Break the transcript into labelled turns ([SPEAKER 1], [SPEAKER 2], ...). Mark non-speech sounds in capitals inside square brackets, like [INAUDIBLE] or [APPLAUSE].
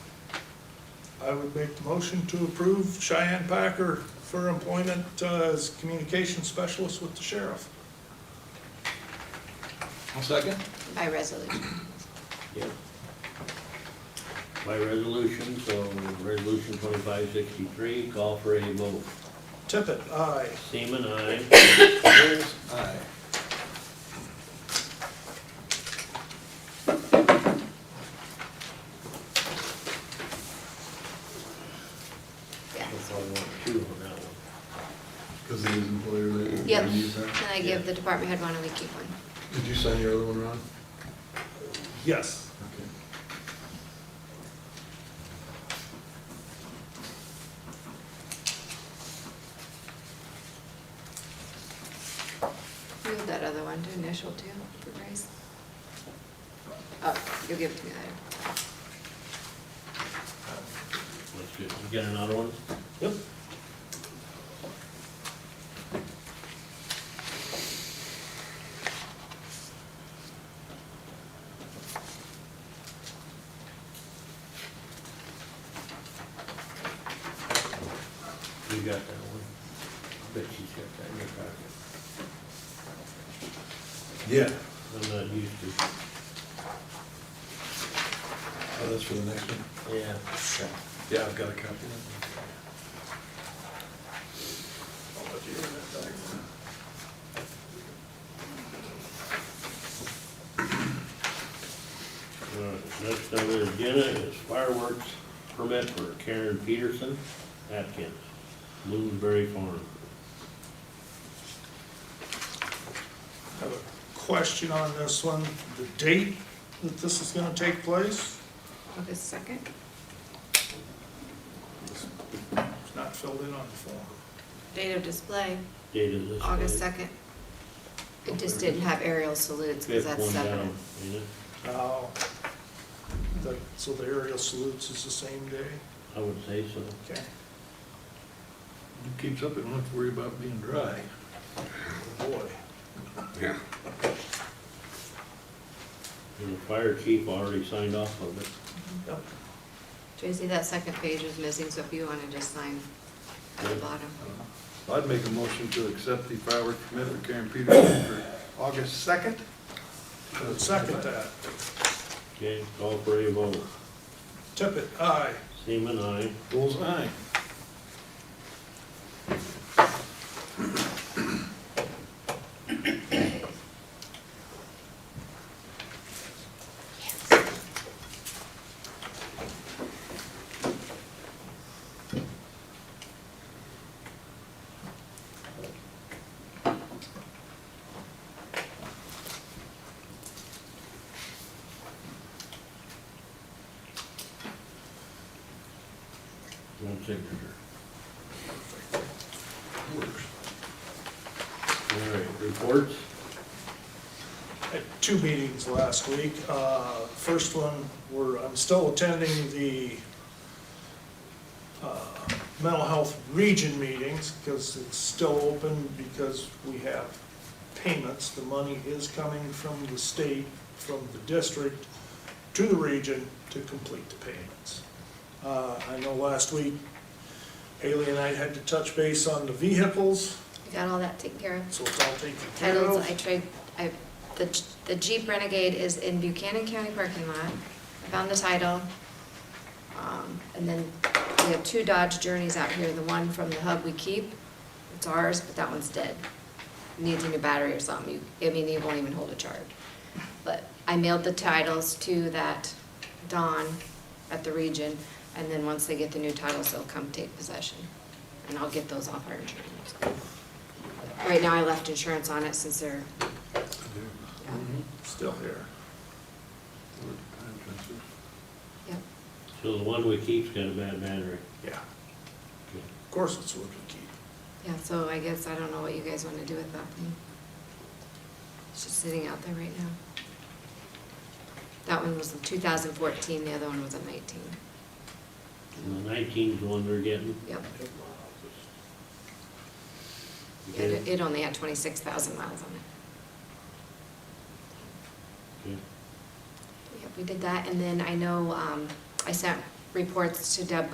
[SPEAKER 1] I would make the motion to approve Cheyenne Packer for employment uh, as communication specialist with the sheriff.
[SPEAKER 2] I'll second.
[SPEAKER 3] by resolution.
[SPEAKER 4] Yep. By resolution, so resolution twenty-five sixty-three, call for a vote.
[SPEAKER 1] Tippit, aye.
[SPEAKER 4] Seaman, aye. [COUGHS]
[SPEAKER 2] Ayers? Aye.
[SPEAKER 4] I'll
[SPEAKER 3] Yes.
[SPEAKER 4] probably want two on that one.
[SPEAKER 5] Because it is employer related.
[SPEAKER 3] Yep,
[SPEAKER 5] Did you use
[SPEAKER 3] and
[SPEAKER 5] that?
[SPEAKER 3] I give the department head one and we keep one.
[SPEAKER 5] Did you sign your other one, Ron?
[SPEAKER 1] Yes.
[SPEAKER 5] Okay.
[SPEAKER 3] You have that other one to initial too, for Bryce. Oh, you'll give it to me later.
[SPEAKER 4] Let's do, you got another one?
[SPEAKER 1] Yep.
[SPEAKER 4] You got that one? I bet she's got that in her pocket.
[SPEAKER 2] Yeah.
[SPEAKER 4] I'm not used to.
[SPEAKER 2] Oh, that's for the next one?
[SPEAKER 4] Yeah.
[SPEAKER 2] Okay. Yeah, I've got a copy of
[SPEAKER 1] I'll let you have that back.
[SPEAKER 4] All right, next on the agenda uh, is fireworks permit for Karen Peterson, Atkins, Blueberry Farm.
[SPEAKER 1] I have a question on this one, the date that this is gonna take place?
[SPEAKER 3] August second?
[SPEAKER 1] It's not filled in on the form.
[SPEAKER 3] Date of display,
[SPEAKER 4] Date of this.
[SPEAKER 3] August
[SPEAKER 4] date.
[SPEAKER 3] second. It just didn't have aerial salutes because
[SPEAKER 4] Fifth
[SPEAKER 3] that's
[SPEAKER 4] one
[SPEAKER 3] separate.
[SPEAKER 4] down, ain't it?
[SPEAKER 1] Now, the- so the aerial salutes is the same day?
[SPEAKER 4] I would say so.
[SPEAKER 1] Okay.
[SPEAKER 2] it. Keeps up, it don't have to worry about being dry.
[SPEAKER 1] Oh, Boy,
[SPEAKER 4] And the fire chief already signed off of it.
[SPEAKER 1] yep,
[SPEAKER 3] Tracy, that second page was missing, so if you want to just sign at the bottom.
[SPEAKER 2] I'd make a motion to accept the fireworks permit for Karen Peterson for August 2nd.
[SPEAKER 1] I would second that.
[SPEAKER 4] Okay, call for a vote.
[SPEAKER 1] Tippit, aye.
[SPEAKER 4] Seaman, aye.
[SPEAKER 2] Bullseye.
[SPEAKER 4] One signature. All right, reports?
[SPEAKER 1] Had two meetings last week. Uh, First one, where I'm still attending the uh, mental health region meetings because it's still open because we have payments. The money is coming from the state, from the district to the region to complete the payments. Uh, I know last week Haley and I had to touch base on the vehicles,
[SPEAKER 3] You got all that taken care of?
[SPEAKER 1] so it's all taken care of.
[SPEAKER 3] Titles, I trade, I, the the Jeep Renegade is in Buchanan County parking lot. I found the title. Um, And then we have two Dodge Journeys out here, the one from the hub we keep, it's ours, but that one's dead. Needs a new battery or something, You- I mean, it won't even hold a charge. But I mailed the titles to that Don at the region, and then once they get the new titles, they'll come take possession. And I'll get those off our insurance. Right now, I left insurance on it since they're,
[SPEAKER 2] Mm-hmm.
[SPEAKER 3] yeah,
[SPEAKER 1] Still here.
[SPEAKER 3] yep.
[SPEAKER 4] So the one we keep's got a bad battery.
[SPEAKER 1] Yeah. Of course it's what we keep.
[SPEAKER 3] Yeah, so I guess I don't know what you guys want to do with that thing. It's just sitting out there right now. That one was in 2014, the other one was in 19.
[SPEAKER 4] And the nineteen's the one they're getting.
[SPEAKER 3] Yep.
[SPEAKER 4] Okay,
[SPEAKER 3] It, it only had 26,000 miles on it.
[SPEAKER 4] okay.
[SPEAKER 3] Yep, we did that, and then I know um, I sent reports to Deb